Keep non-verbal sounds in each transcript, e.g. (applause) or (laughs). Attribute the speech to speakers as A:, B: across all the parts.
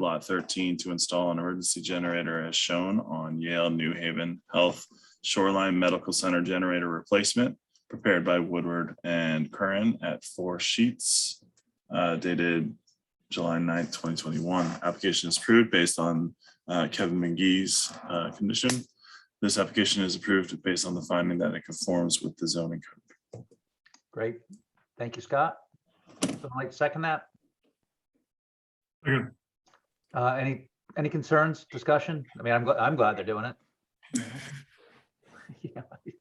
A: Lot 13 to install an emergency generator as shown on Yale New Haven Health Shoreline Medical Center generator replacement prepared by Woodward and Curran at four sheets uh, dated July 9th, 2021. Application is approved based on uh, Kevin McGee's uh, condition. This application is approved based on the finding that it conforms with the zoning code.
B: Great. Thank you, Scott. Someone like to second that?
A: Second.
B: Uh, any, any concerns, discussion? I mean, I'm, gl- I'm glad they're doing it. (laughs) Yeah. I-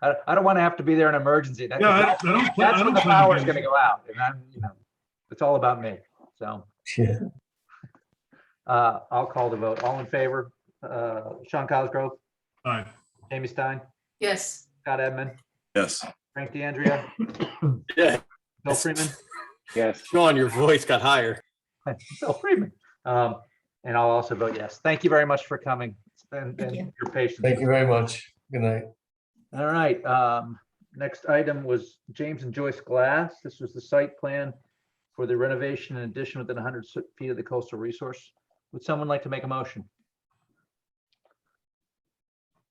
B: I, I don't want to have to be there in an emergency. That-
C: Yeah, I don't, I don't. plan- I
B: That's
C: don't
B: when the
C: plan to
B: power's
C: be-
B: gonna go out and I'm, you know, it's all about me. So,
D: Yeah,
B: (laughs) uh, I'll call the vote. All in favor? Uh, Sean Cosgrove,
C: Aye.
B: Jamie Stein,
E: Yes,
B: Scott Edmund,
A: Yes.
B: Frank DeAndrea,
F: Yeah,
B: Bill Freeman.
G: Yes,
F: Sean, your voice got higher.
B: Bill Freeman. Um, and I'll also vote yes. Thank you very much for coming and,
E: Thank
B: and
E: you.
B: your patience.
D: thank you very much. Good night.
B: All right, um, next item was James and Joyce Glass. This was the site plan for the renovation and addition within hundred feet of the coastal resource. Would someone like to make a motion?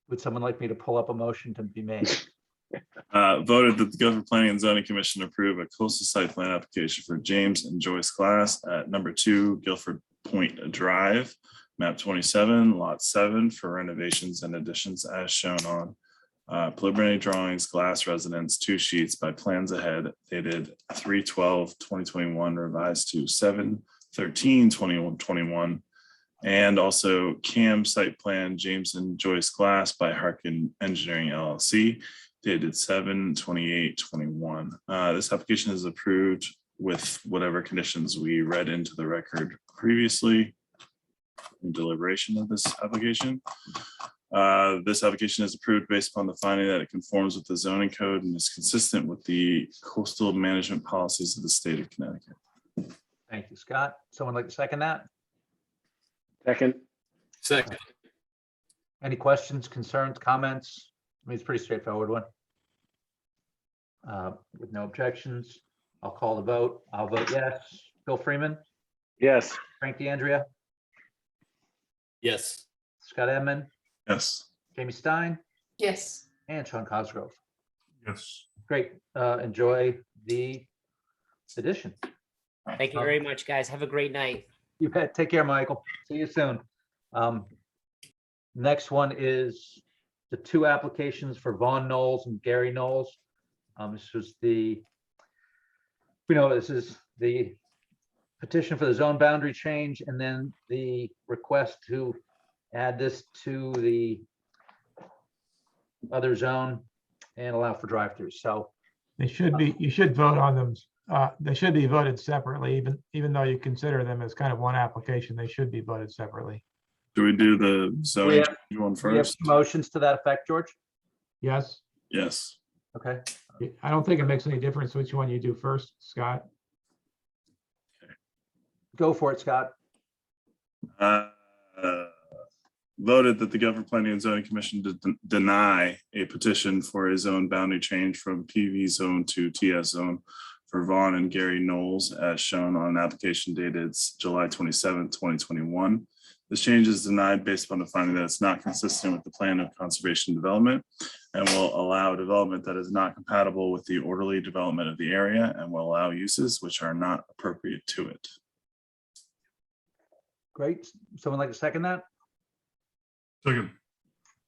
B: Would someone like me to pull up a motion to be made?
A: Uh, voted that the Guilford Planning and Zoning Commission approve a coastal site plan application for James and Joyce Glass at number two Guilford Point Drive, map twenty-seven, lot seven for renovations and additions as shown on uh, preliminary drawings, glass residence, two sheets by plans ahead dated 3-12-2021, revised to 7-13-2021, And also CAM site plan James and Joyce Glass by Harkin Engineering LLC dated seven twenty-eight twenty-one. Uh, this application is approved with whatever conditions we read into the record previously in deliberation of this application. Uh, this application is approved based upon the finding that it conforms with the zoning code and is consistent with the coastal management policies of the state of Connecticut.
B: Thank you, Scott. Someone like to second that?
G: second,
F: Second,
B: Any questions, concerns, comments? I mean, it's a pretty straightforward one. Uh, with no objections, I'll call the vote. I'll vote yes. Bill Freeman,
G: yes,
B: Frank DeAndrea,
F: yes,
B: Scott Edmund,
A: Yes.
B: Jamie Stein,
E: yes.
B: and Sean Cosgrove.
C: Yes.
B: Great, uh, enjoy the edition.
H: Thank you very much, guys. Have a great night.
B: You bet, take care, Michael. See you soon. Um, next one is the two applications for Vaughn Knowles and Gary Knowles. Um, this was the, we know this is the petition for the zone boundary change and then the request to add this to the other zone and allow for drive-throughs. So
I: They should be, you should vote on them. uh, They should be voted separately, even, even though you consider them as kind of one application, they should be voted separately.
A: Do we do the zoning
B: have-
A: one
B: do we have
A: first?
B: motions to that effect, George?
I: Yes,
A: Yes.
B: Okay,
I: I don't think it makes any difference which one you do first, Scott.
B: go for it, Scott.
A: uh, voted that the Guilford Planning and Zoning Commission did deny a petition for a zone boundary change from PV zone to TS zone for Vaughn and Gary Knowles as shown on an application dated s- July 27, 2021. This change is denied based upon the finding that it's not consistent with the plan of conservation development and will allow development that is not compatible with the orderly development of the area and will allow uses which are not appropriate to it.
B: Great. S- Someone like to second that?
C: Second.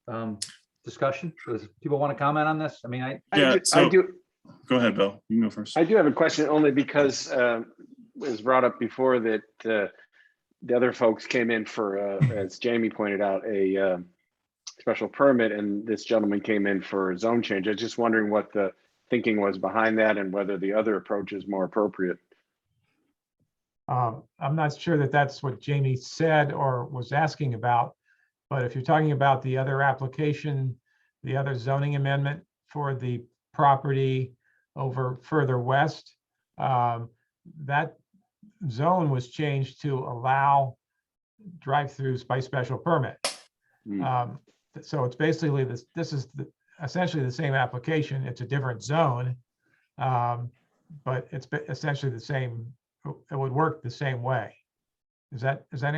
B: Um, discussion? Does people want to comment on this? I mean, I,
G: I
A: Yeah,
G: do- I
A: so-
G: do,
A: Go ahead, Bill. You can go first.
G: I do have a question only because um, it was brought up before that uh, the other folks came in for, uh, as Jamie pointed out, a um, special permit and this gentleman came in for a zone change. I was just wondering what the thinking was behind that and whether the other approach is more appropriate.
I: Um, I'm not sure that that's what Jamie said or was asking about. But if you're talking about the other application, the other zoning amendment for the property over further west, um, that zone was changed to allow drive-throughs by special permit.
G: Hmm.
I: Um, th- So it's basically this, this is the- essentially the same application. It's a different zone. um, But it's be- essentially the same, it would work the same way. Is that, is that